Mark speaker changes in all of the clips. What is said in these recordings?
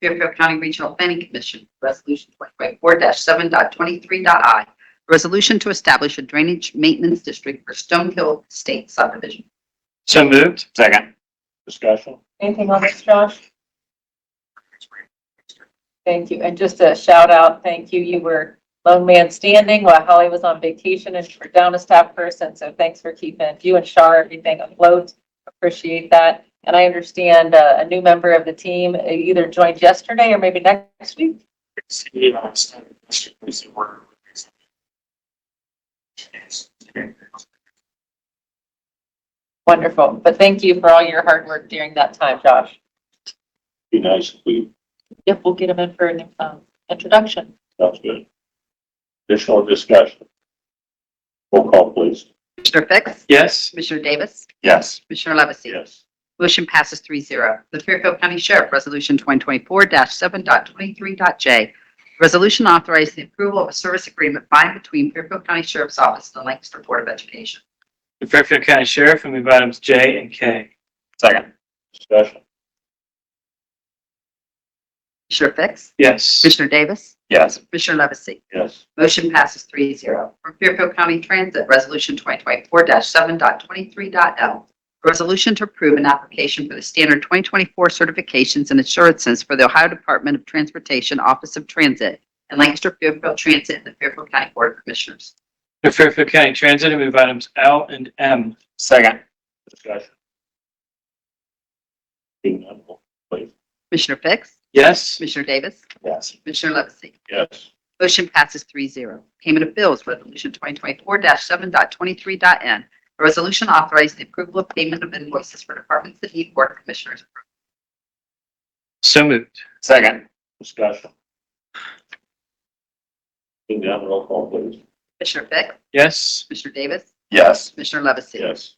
Speaker 1: Fairfield County Regional Planning Commission, Resolution 2024-7.23.i. a Resolution to establish a drainage maintenance district for Stonehill State subdivision.
Speaker 2: So moved.
Speaker 3: Second.
Speaker 2: Discussion.
Speaker 4: Anything on this, Josh? Thank you. And just a shout out, thank you. You were lone man standing while Holly was on vacation and you were down a staff person. So thanks for keeping you and Shar everything afloat. Appreciate that. And I understand uh, a new member of the team either joined yesterday or maybe next week.
Speaker 2: City of Austin, Mr. Police Award.
Speaker 4: Wonderful. But thank you for all your hard work during that time, Josh.
Speaker 2: Be nice if we,
Speaker 4: Yep, we'll get him in for an um, introduction.
Speaker 2: sounds good. Additional discussion. Roll call, please.
Speaker 1: Commissioner Fix?
Speaker 2: Yes.
Speaker 1: Commissioner Davis?
Speaker 3: Yes.
Speaker 1: Commissioner Levesey?
Speaker 2: Yes.
Speaker 1: Motion passes three zero. The Fairfield County Sheriff Resolution 2024-7.23.j. Resolution authorizing the approval of a service agreement by and between Fairfield County Sheriff's Office and the Lancaster Board of Education.
Speaker 5: The Fairfield County Sheriff will move items J and K.
Speaker 3: Second.
Speaker 2: Discussion.
Speaker 1: Commissioner Fix?
Speaker 5: Yes.
Speaker 1: Commissioner Davis?
Speaker 3: Yes.
Speaker 1: Commissioner Levesey?
Speaker 2: Yes.
Speaker 1: Motion passes three zero. From Fairfield County Transit, Resolution 2024-7.23.l. A Resolution to approve an application for the standard 2024 certifications and assurances for the Ohio Department of Transportation Office of Transit and Lancaster Fairfield Transit and the Fairfield County Board of Commissioners.
Speaker 5: The Fairfield County Transit will move items L and M.
Speaker 3: Second.
Speaker 2: Discussion. Seeing none, roll-
Speaker 1: Commissioner Fix?
Speaker 5: Yes.
Speaker 1: Commissioner Davis?
Speaker 3: Yes.
Speaker 1: Commissioner Levesey?
Speaker 2: Yes.
Speaker 1: Motion passes three zero. Payment of bills, Resolution 2024-7.23.n. A resolution authorizing the approval of payment of invoices for departments that need Board of Commissioners approval.
Speaker 5: So moved.
Speaker 3: Second.
Speaker 2: Discussion. Seeing none, roll call, please.
Speaker 1: Commissioner Fix?
Speaker 5: Yes.
Speaker 1: Commissioner Davis?
Speaker 3: Yes.
Speaker 1: Commissioner Levesey?
Speaker 2: Yes.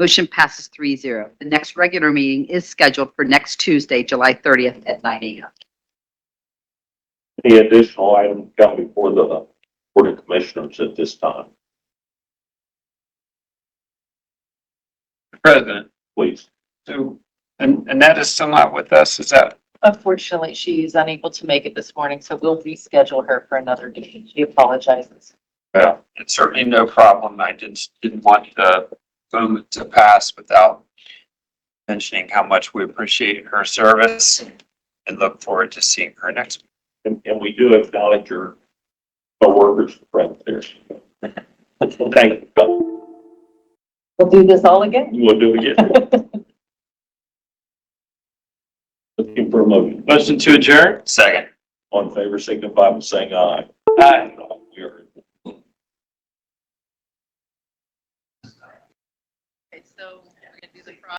Speaker 1: Motion passes three zero. The next regular meeting is scheduled for next Tuesday, July 30th at 9 a.m.
Speaker 2: Any additional item come before the Board of Commissioners at this time,
Speaker 5: President.
Speaker 2: please?
Speaker 3: So, and Annette is still not with us, is that?
Speaker 4: Unfortunately, she is unable to make it this morning, so we'll reschedule her for another day. She apologizes.
Speaker 3: Yeah. It's certainly no problem. I just didn't want the moment to pass without mentioning how much we appreciate her service and look forward to seeing her next.
Speaker 2: And, and we do acknowledge your coworkers friend there. Thank you.
Speaker 4: We'll do this all again.
Speaker 2: We'll do it again. Looking for a motion.
Speaker 5: Motion to adjourn?
Speaker 3: Second.
Speaker 2: All in favor, signify by saying aye.
Speaker 5: Aye.
Speaker 2: We are.
Speaker 4: Okay, so we're gonna do the